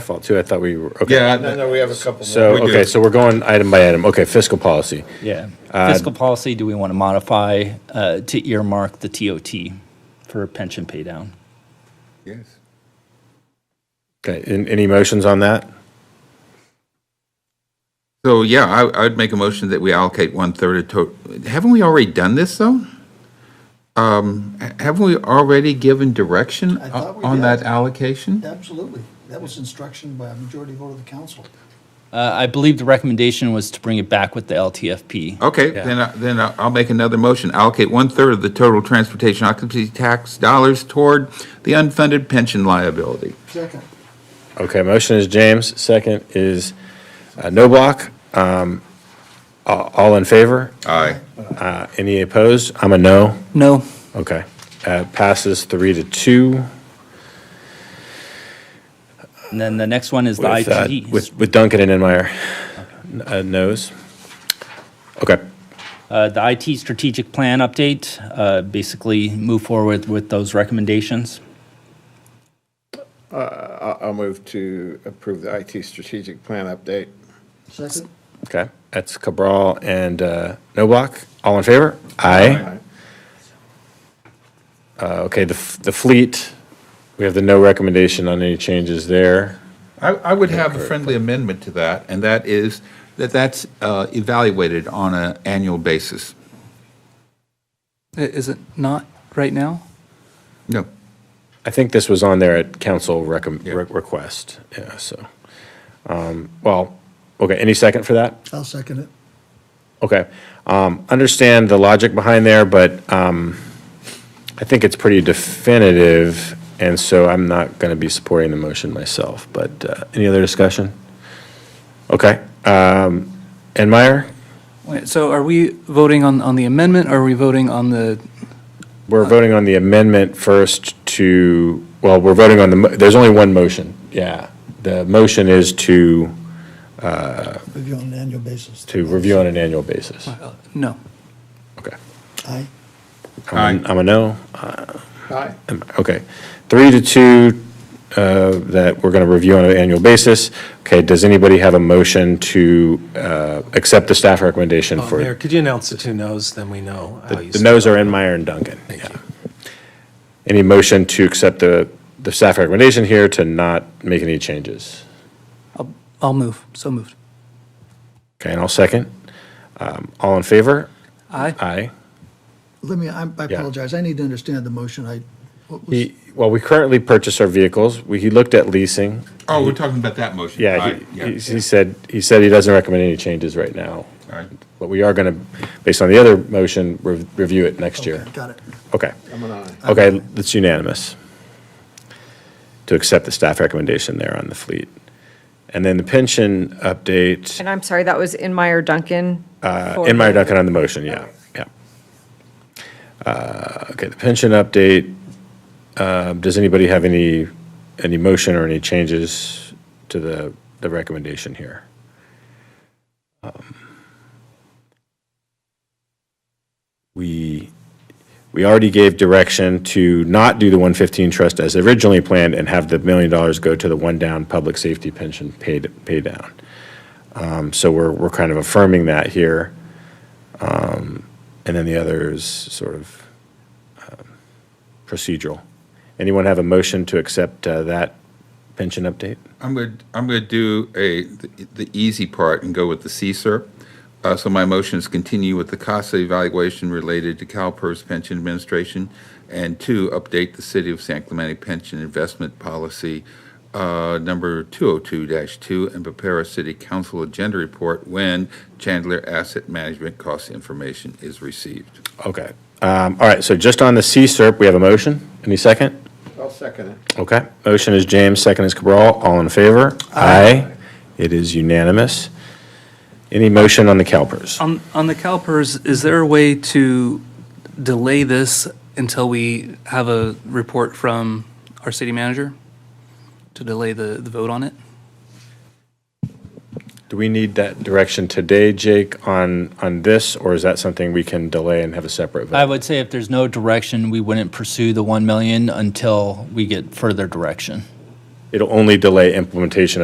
fault too. I thought we were, okay. Yeah, No, I- no, we have a couple more. So, We do. okay, so we're going item by item. Okay, fiscal policy. Yeah. Fiscal policy, do we want to modify uh, to earmark the TOT for pension pay down? yes. Okay, an- any motions on that? So, yeah, I, I'd make a motion that we allocate one-third of to, haven't we already done this, though? Um, ha- haven't we already given direction I thought we on did. that allocation? Absolutely. That was instruction by a majority vote of the council. Uh, I believe the recommendation was to bring it back with the LTFP. Okay, then, I- then I- I'll make another motion, allocate one-third of the total transportation occupancy tax dollars toward the unfunded pension liability. Second. Okay, motion is James, second is uh, no block. Um, a- All in favor? Aye. Uh, Any opposed? I'm a no. No. Okay. Uh, Passes three to two And then the next one is the with, uh, IGD. with with Duncan and Enmeyer. N- uh, Noes. Okay. Uh, The IT strategic plan update, uh, basically move forward with those recommendations. I- I'll move to approve the IT strategic plan update. Second. Okay, that's Cabral and uh, Noblock. All in favor? Aye. Uh, Okay, the f- the fleet, we have the no recommendation on any changes there. I, I would have a friendly amendment to that, and that is, that that's uh, evaluated on an annual basis. I- Is it not right now? No, I think this was on there at council recomm- Yeah. re- request, yeah, so. um, Well, okay, any second for that? I'll second it. Okay. Um, Understand the logic behind there, but um, I think it's pretty definitive, and so I'm not going to be supporting the motion myself, but uh, any other discussion? Okay. Um, Enmeyer, Wait, so are we voting on, on the amendment, or are we voting on the, Uh. we're voting on the amendment first to, well, we're voting on the, mo- there's only one motion, yeah. The motion is to, Review on an annual basis. to review on an annual basis. uh, no? Okay. Aye. I'm a- I'm a no. Aye. Okay, three to two, uh, that we're going to review on an annual basis. Okay, does anybody have a motion to uh, accept the staff recommendation Oh, for? Mayor, could you announce the two noes, then we know how you The stand. noes are Enmeyer and Duncan. Thank yeah. you. Any motion to accept the, the staff recommendation here to not make any changes? I'll, I'll move, so moved. Okay, and I'll second. Um, All in favor? Aye? Aye. Let me, I'm- I Yeah. apologize. I need to understand the motion. I, what was, He, well, we currently purchase our vehicles. We, he looked at leasing. Oh, we're talking about that motion. Yeah, Aye, he, he he said, he said he doesn't recommend any changes right now. Aye. But we are going to, based on the other motion, rev- review it next year. got it. Okay. I'm an aye. Okay, that's unanimous to accept the staff recommendation there on the fleet. And then the pension update, And I'm sorry, that was Inmeyer Duncan? for- in my Uh, Duncan on the motion, yeah, yeah. Uh, Okay, the pension update, uh, does anybody have any, any motion or any changes to the, the recommendation here? Um, we, we already gave direction to not do the 115 trust as originally planned and have the million dollars go to the one-down public safety pension paid, pay down. Um, So we're, we're kind of affirming that here. Um, And then the other is sort of um, procedural. Anyone have a motion to accept uh, that pension update? I'm going, to I'm going to do a, the- the easy part and go with the CSER. Uh, So my motion is continue with the CASA evaluation related to CalPERS Pension Administration, and two, update the City of San Clemente Pension Investment Policy uh, number 202-2, and prepare a City Council agenda report when Chandler Asset Management cost information is received. Okay. Um, All right, so just on the CSERP, we have a motion? Any second? I'll second it. Okay, motion is James, second is Cabral, all in favor? Aye. It is unanimous. Any motion on the CalPERS? On, on the CalPERS, is there a way to delay this until we have a report from our city manager? To delay the, the vote on it? Do we need that direction today, Jake, on, on this, or is that something we can delay and have a separate I vote? would say if there's no direction, we wouldn't pursue the 1 million until we get further direction. It'll only delay implementation